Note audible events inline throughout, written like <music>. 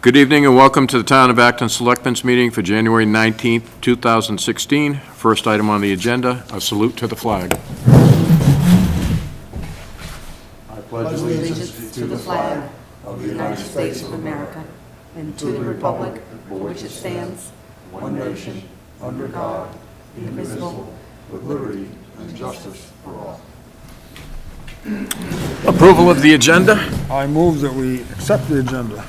Good evening and welcome to the Town of Acton Selectmen's Meeting for January 19th, 2016. First item on the agenda, a salute to the flag. pledge allegiance to the flag of the United States of America and to the republic for which it stands, one nation, under God, indivisible, with liberty and justice for all. Approval of the agenda? I move that we accept the agenda.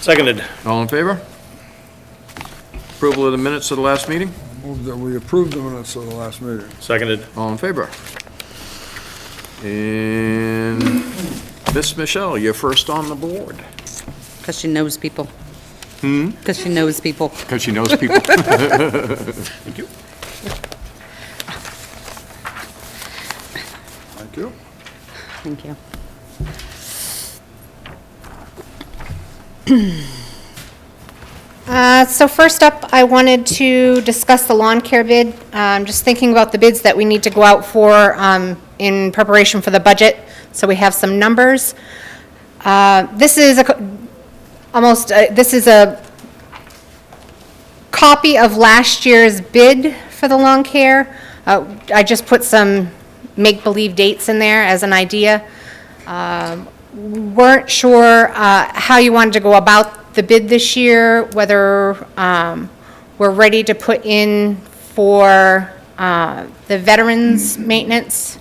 Seconded. All in favor? Approval of the minutes of the last meeting? Move that we approve the minutes of the last meeting. Seconded. All in favor? And Miss Michelle, you're first on the board. Because she knows people. Hmm? Because she knows people. Because she knows <laughs> people. Thank you. Thank you. Thank you. Uh, So first up, I wanted to discuss the lawn care bid. Um, Just thinking about the bids that we need to go out for um, in preparation for the budget, so we have some numbers. Uh, This is a co- almost, uh, this is a copy of last year's bid for the lawn care. Uh, I just put some make-believe dates in there as an idea. Um, Weren't sure uh, how you wanted to go about the bid this year, whether um, we're ready to put in for uh, the veterans' maintenance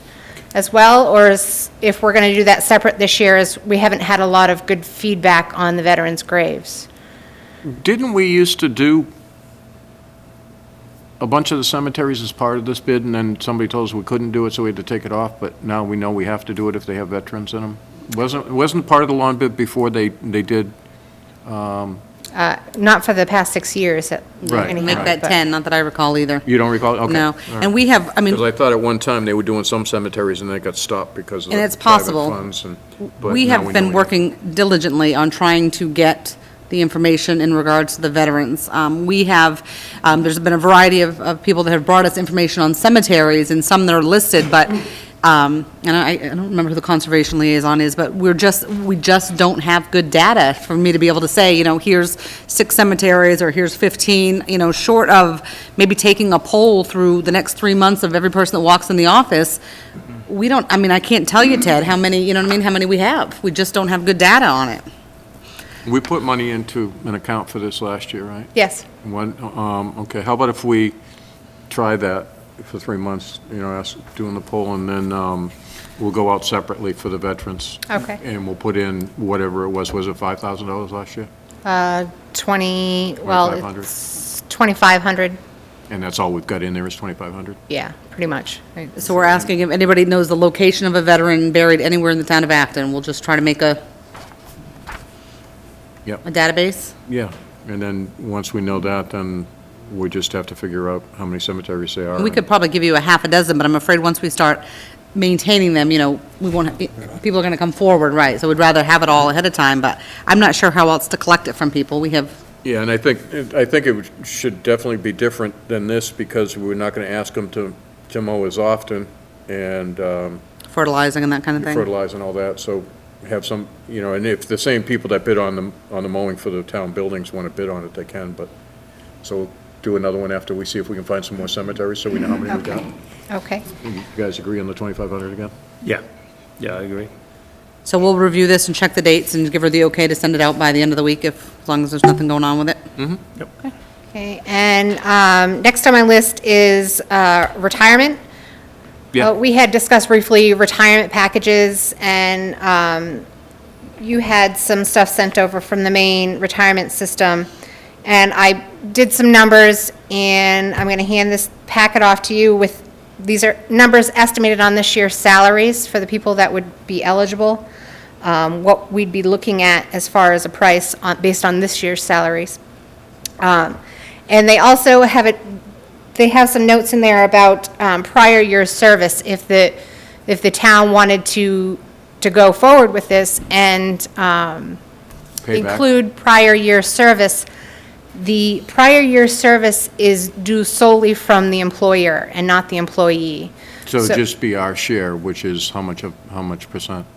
as well, or is- if we're going to do that separate this year, as we haven't had a lot of good feedback on the veterans' graves. Didn't we used to do a bunch of the cemeteries as part of this bid, and then somebody told us we couldn't do it, so we had to take it off, but now we know we have to do it if they have veterans in them? Wasn't, wasn't part of the lawn bid before they, they did? Uh, Not for the past six years. that- Right, anyhow, right. Make that but- 10, not that I recall either. You don't recall? Okay. No. And we have, I mean, Because I thought at one time they were doing some cemeteries and they got stopped because of And the it's private possible. funds and- but we now have know we been do. working diligently on trying to get the information in regards to the veterans. Um, We have, um, there's been a variety of, of people that have brought us information on cemeteries, and some that are listed, but, um, and I, I don't remember who the conservation liaison is, but we're just, we just don't have good data for me to be able to say, you know, here's six cemeteries, or here's 15, you know, short of maybe taking a poll through the next three months of every person that walks in the office, we don't, I mean, I can't tell you, Ted, how many, you know what I mean, how many we have. We just don't have good data on it. We put money into an account for this last year, right? Yes. One, um, okay, how about if we try that for three months, you know, ask, doing the poll, and then, um, we'll go out separately for the veterans. Okay. And we'll put in whatever it was, was it five thousand dollars last year? Uh, 20, well, 2,500. it's 2,500, And that's all we've got in there is twenty-five hundred? yeah, pretty much. Right. So we're asking if anybody knows the location of a veteran buried anywhere in the town of Acton. We'll just try to make a, Yep. a database. Yeah, and then, once we know that, then we just have to figure out how many cemeteries there are. We and- could probably give you a half a dozen, but I'm afraid once we start maintaining them, you know, we won't, people are going to come forward, right? So we'd rather have it all ahead of time, but I'm not sure how else to collect it from people. We have, Yeah, and I think, I think it should definitely be different than this, because we're not gonna ask them to, to mow as often, and, um, fertilizing and that kind of thing. fertilize and all that, so have some, you know, and if the same people that bid on the, on the mowing for the town buildings want to bid on it, they can, but, so do another one after we see if we can find some more cemeteries, so we know how many we've got. Okay, You guys agree on the 2,500 again? Yeah, yeah, I agree. So we'll review this and check the dates and give her the okay to send it out by the end of the week if, as long as there's nothing going on with it. okay, and um, next on my list is uh, retirement. Yeah. Uh, We had discussed briefly retirement packages, and um, you had some stuff sent over from the main retirement system, and I did some numbers, and I'm going to hand this packet off to you with, these are numbers estimated on this year's salaries for the people that would be eligible, um, what we'd be looking at as far as a price on- based on this year's salaries. Um, And they also have it, they have some notes in there about um, prior year service, if the, if the town wanted to, to go forward with this and um, Payback. include prior year service. The prior year service is due solely from the employer and not the employee. So just be our share, which is how much of, how much percent?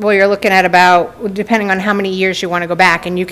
Well, you're looking at about, depending on how many years you want to go back, and you